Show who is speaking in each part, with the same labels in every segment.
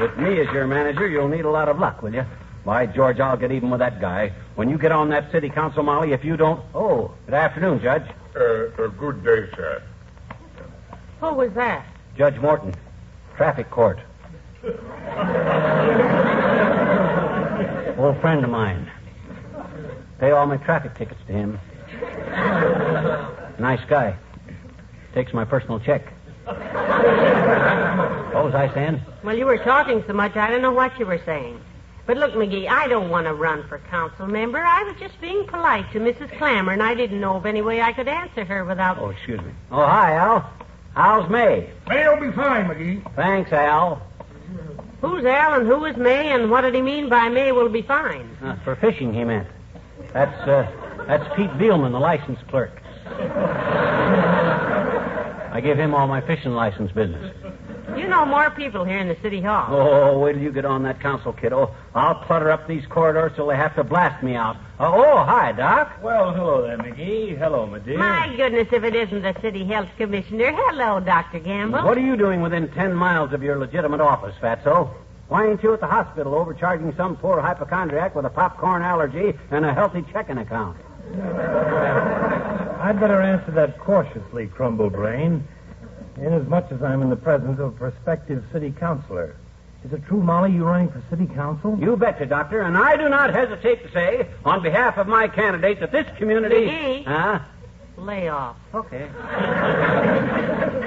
Speaker 1: With me as your manager, you'll need a lot of luck, will you? By George, I'll get even with that guy. When you get on that city council, Molly, if you don't. Oh, good afternoon, Judge.
Speaker 2: Uh, uh, good day, sir.
Speaker 3: Who was that?
Speaker 1: Judge Morton, traffic court. Old friend of mine. Pay all my traffic tickets to him. Nice guy. Takes my personal check. What was I saying?
Speaker 3: Well, you were talking so much, I don't know what you were saying. But look, McGee, I don't want to run for council member. I was just being polite to Mrs. Clammer, and I didn't know of any way I could answer her without.
Speaker 1: Oh, excuse me. Oh, hi, Al. Al's May.
Speaker 4: May'll be fine, McGee.
Speaker 1: Thanks, Al.
Speaker 3: Who's Al and who is May, and what did he mean by May will be fine?
Speaker 1: Uh, for fishing, he meant. That's, uh, that's Pete Beelman, the license clerk. I give him all my fishing license business.
Speaker 3: You know more people here in the city hall.
Speaker 1: Oh, wait till you get on that council, kiddo. I'll clutter up these corridors till they have to blast me out. Uh, oh, hi, Doc.
Speaker 5: Well, hello there, McGee. Hello, my dear.
Speaker 3: My goodness, if it isn't the city health commissioner. Hello, Dr. Gamble.
Speaker 1: What are you doing within ten miles of your legitimate office, Fatso? Why ain't you at the hospital overcharging some poor hypochondriac with a popcorn allergy and a healthy checking account?
Speaker 5: I'd better answer that cautiously, Crumble Brain, inasmuch as I'm in the presence of a prospective city councilor. Is it true, Molly, you're running for city council?
Speaker 1: You betcha, Doctor, and I do not hesitate to say, on behalf of my candidate, that this community.
Speaker 3: McGee.
Speaker 1: Huh?
Speaker 3: Layoff.
Speaker 1: Okay.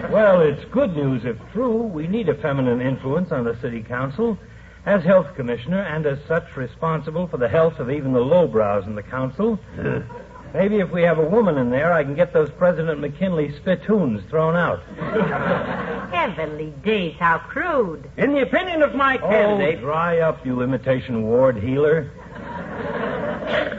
Speaker 5: Well, it's good news if true. We need a feminine influence on the city council. As health commissioner, and as such responsible for the health of even the lowbrows in the council, maybe if we have a woman in there, I can get those President McKinley spittoons thrown out.
Speaker 3: Heavenly days, how crude.
Speaker 1: In the opinion of my
Speaker 5: Oh,
Speaker 1: candidate.
Speaker 5: dry up, you imitation ward healer.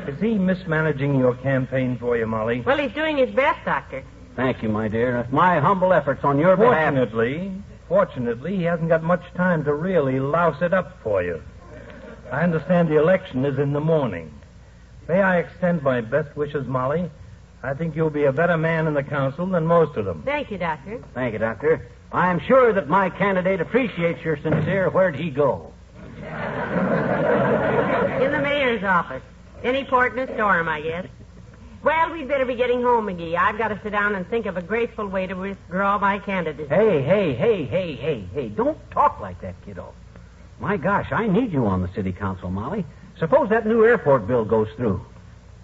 Speaker 5: Is he mismanaging your campaign for you, Molly?
Speaker 3: Well, he's doing his best, Doctor.
Speaker 1: Thank you, my dear. My humble efforts on your behalf.
Speaker 5: Fortunately, fortunately, he hasn't got much time to really louse it up for you. I understand the election is in the morning. May I extend my best wishes, Molly? I think you'll be a better man in the council than most of them.
Speaker 3: Thank you, Doctor.
Speaker 1: Thank you, Doctor. I am sure that my candidate appreciates your sincere where'd he go.
Speaker 3: In the mayor's office. Any port in a storm, I guess. Well, we'd better be getting home, McGee. I've got to sit down and think of a graceful way to withdraw my candidacy.
Speaker 1: Hey, hey, hey, hey, hey, hey. Don't talk like that, kiddo. My gosh, I need you on the city council, Molly. Suppose that new airport bill goes through.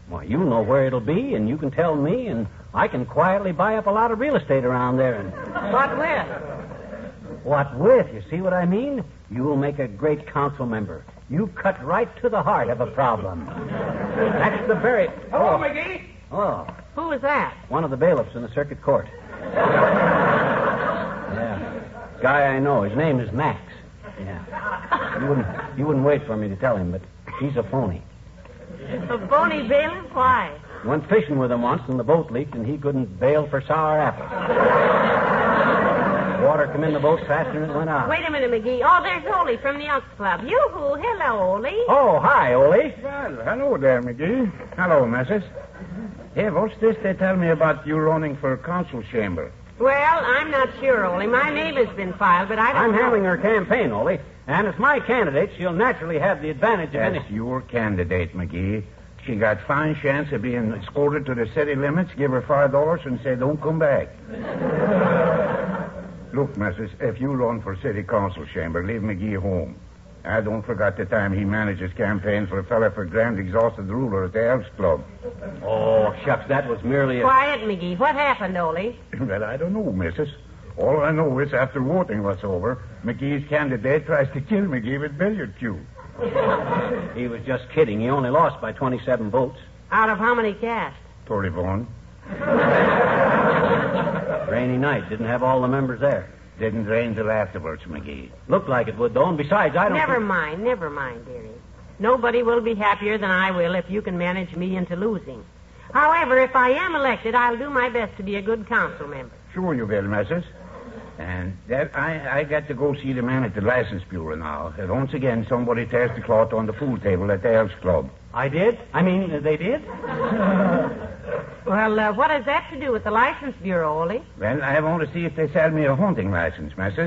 Speaker 1: Why, you know where it'll be, and you can tell me, and I can quietly buy up a lot of real estate around there. And
Speaker 3: What with?
Speaker 1: what with? You see what I mean? You'll make a great council member. You cut right to the heart of a problem. That's the very.
Speaker 4: Hello, McGee.
Speaker 1: Oh.
Speaker 3: Who was that?
Speaker 1: One of the bailiffs in the circuit court. yeah. Guy I know. His name is Max. Yeah. You wouldn't, you wouldn't wait for me to tell him, but he's a phony.
Speaker 3: A bony bailiff? Why?
Speaker 1: Went fishing with him once, and the boat leaked, and he couldn't bail for sour apples. Water come in the boat faster than it went out.
Speaker 3: Wait a minute, McGee. Oh, there's Ole from the Elks Club. Yoo-hoo. Hello, Ole.
Speaker 1: Oh, hi, Ole.
Speaker 4: Well, hello there, McGee. Hello, Messrs. Hey, what's this they tell me about you running for council chamber?
Speaker 3: Well, I'm not sure, Ole. My name has been filed, but I don't
Speaker 1: I'm
Speaker 3: know.
Speaker 1: handling her campaign, Ole. And as my candidate, she'll naturally have the advantage of
Speaker 4: That's
Speaker 1: any.
Speaker 4: your candidate, McGee. She got fine chance of being escorted to the city limits, give her five dollars, and say, don't come back. Look, Messrs, if you run for city council chamber, leave McGee home. I don't forget the time he manages campaigns for a fella for grand exhausted ruler at the Elks Club.
Speaker 1: Oh, shucks, that was merely a.
Speaker 3: Quiet, McGee. What happened, Ole?
Speaker 4: Well, I don't know, Mrs. All I know is after voting was over, McGee's candidate tries to kill McGee with billiard cue.
Speaker 1: He was just kidding. He only lost by 27 votes.
Speaker 3: Out of how many cast?
Speaker 4: Tory Vaughn
Speaker 1: Rainy night. Didn't have all the members there.
Speaker 4: didn't rain till afterwards, McGee.
Speaker 1: Looked like it would, though. And besides, I don't.
Speaker 3: Never
Speaker 1: think-
Speaker 3: mind, never mind, dearie. Nobody will be happier than I will if you can manage me into losing. However, if I am elected, I'll do my best to be a good council member.
Speaker 4: Sure you will, Mrs. And that I, I got to go see the man at the license bureau now. And once again, somebody tears the cloth on the pool table at the Elks Club.
Speaker 1: I did. I mean, uh, they did.
Speaker 3: Well, uh, what has that to do with the license bureau, Ollie?
Speaker 4: Well, I want to see if they sell me a hunting license, Mrs.